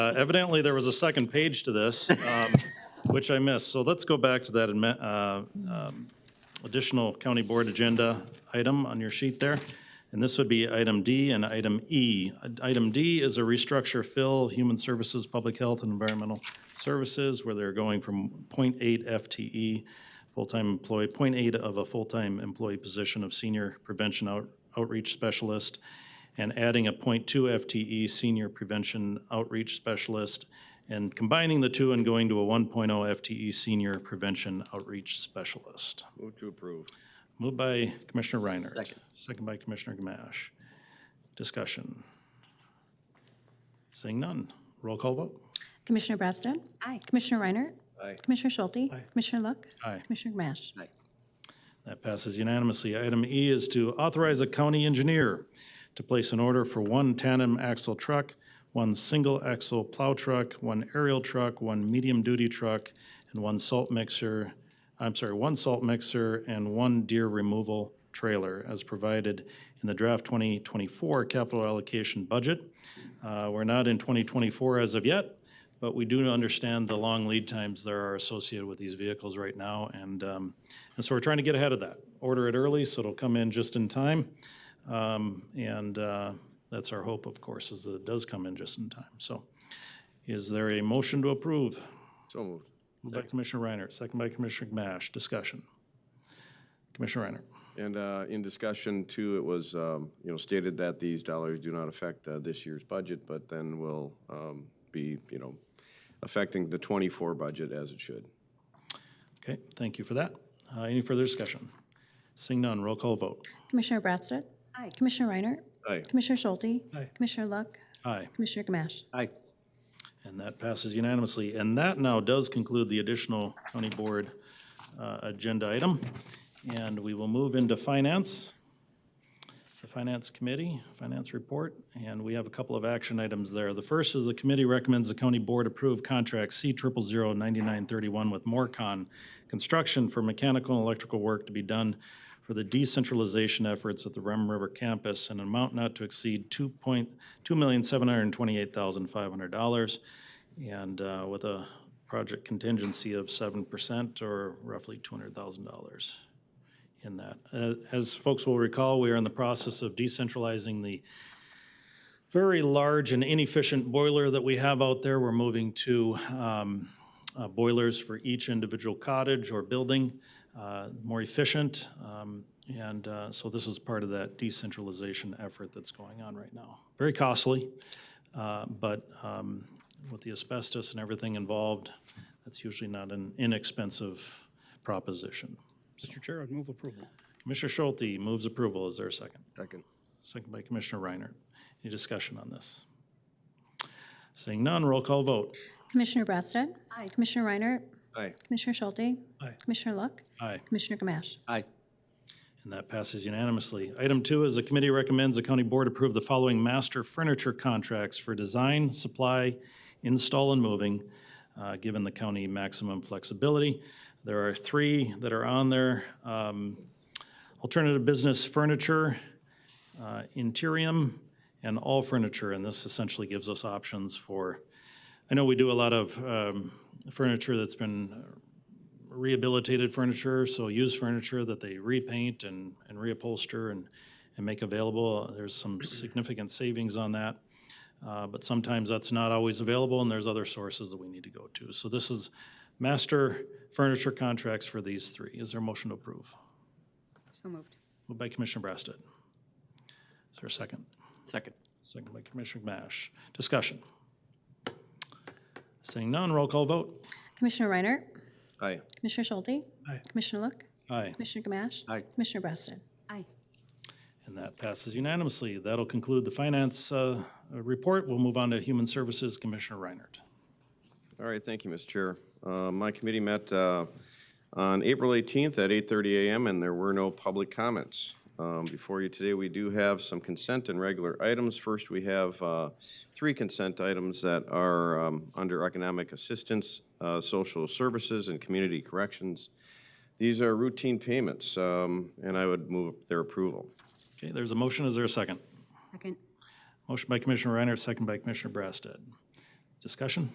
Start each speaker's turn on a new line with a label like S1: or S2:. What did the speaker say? S1: Uh, Evidently, there was a second page to this, um, which I missed. So let's go back to that admi- uh, um, additional county board agenda item on your sheet there. And this would be item D and item E. Uh, Item D is a restructure fill, human services, public health, and environmental services, where they're going from 0.8 FTE, E, full-time employee, 0.8 of a full-time employee position of senior prevention out- outreach specialist, and adding a 0.2 FTE E, senior prevention outreach specialist, and combining the two and going to a 1.0 FTE E, senior prevention outreach specialist.
S2: Move to approve.
S1: Moved by Commissioner Reinert. Second. by Commissioner Gamache. Discussion. Seeing none. Roll call vote.
S3: Commissioner Brassad? Aye. Commissioner Reiner?
S2: Aye.
S3: Commissioner Schulte? Commissioner Look?
S1: Aye.
S3: Commissioner Gamache?
S1: That passes unanimously. Item E is to authorize a county engineer to place an order for one tandem axle truck, one single axle plow truck, one aerial truck, one medium-duty truck, and one salt mixer, I'm sorry, one salt mixer and one deer removal trailer as provided in the draft 2024 capital allocation budget. Uh, We're not in 2024 as of yet, but we do understand the long lead times there are associated with these vehicles right now, and, um, and so we're trying to get ahead of that. Order it early, so it'll come in just in time. Um, and, uh, that's our hope, of course, is that it does come in just in time. So is there a motion to approve?
S2: So moved.
S1: Moved by Commissioner Reiner, second by Commissioner Gamache. Discussion. Commissioner Reiner.
S2: And uh, in discussion too, it was, um, you know, stated that these dollars do not affect uh, this year's budget, but then will um, be, you know, affecting the 24 budget as it should.
S1: Okay, thank you for that. Uh, any further discussion? Seeing none, roll call vote.
S3: Commissioner Brassad? Aye. Commissioner Reiner?
S2: Aye.
S3: Commissioner Schulte? Aye. Commissioner Look?
S1: Aye.
S3: Commissioner Gamache?
S2: Aye.
S1: And that passes unanimously. And that now does conclude the additional county board uh, agenda item. And we will move into finance, the finance committee, finance report. And we have a couple of action items there. The first is the committee recommends the county board approve contract C triple zero ninety-nine thirty-one with Morcon Construction for mechanical and electrical work to be done for the decentralization efforts at the Rum River campus in an amount not to exceed two point, two million, seven hundred and twenty-eight thousand, five hundred dollars. And uh, with a project contingency of seven percent or roughly two hundred thousand dollars in that. Uh, As folks will recall, we are in the process of decentralizing the very large and inefficient boiler that we have out there. We're moving to um, uh, boilers for each individual cottage or building, uh, more efficient. um, And uh, so this is part of that decentralization effort that's going on right now. Very costly, uh, but um, with the asbestos and everything involved, that's usually not an inexpensive proposition.
S4: Mr. Chair, I'd move approval.
S1: Commissioner Schulte moves approval. Is there a second?
S2: Second.
S1: Second by Commissioner Reiner. Any discussion on this? Seeing none, roll call vote.
S3: Commissioner Brassad? Aye. Commissioner Reiner?
S2: Aye.
S3: Commissioner Schulte?
S4: Aye.
S3: Commissioner Look?
S1: Aye.
S3: Commissioner Gamache?
S2: Aye.
S1: And that passes unanimously. Item two is the committee recommends the county board approve the following master furniture contracts for design, supply, install, and moving, uh, given the county maximum flexibility. There are three that are on there. Um, Alternative Business Furniture, uh, Interium, and All Furniture. And this essentially gives us options for, I know we do a lot of um, furniture that's been rehabilitated furniture, so used furniture that they repaint and, and reupholster and, and make available. There's some significant savings on that. Uh, but sometimes that's not always available and there's other sources that we need to go to. So this is master furniture contracts for these three. Is there a motion to approve?
S5: So moved.
S1: Moved by Commissioner Brasted. Is there a second?
S6: Second.
S1: Second by Commissioner Gamache. Discussion. Seeing none, roll call vote.
S3: Commissioner Reiner?
S2: Aye.
S3: Commissioner Schulte?
S4: Aye.
S3: Commissioner Look?
S1: Aye.
S3: Commissioner Gamache?
S6: Aye.
S3: Commissioner Brassad?
S5: Aye.
S1: And that passes unanimously. That'll conclude the finance uh, uh, report. We'll move on to Human Services, Commissioner Reinert.
S2: All right, thank you, Mr. Chair. Uh, My committee met uh, on April 18th at 8:30 a.m., and there were no public comments. Um, Before you today, we do have some consent and regular items. First, we have uh, three consent items that are um, under economic assistance, uh, social services, and community corrections. These are routine payments, um, and I would move their approval.
S1: Okay, there's a motion. Is there a second?
S5: Second.
S1: Motion by Commissioner Reinert, second by Commissioner Brasted. Discussion?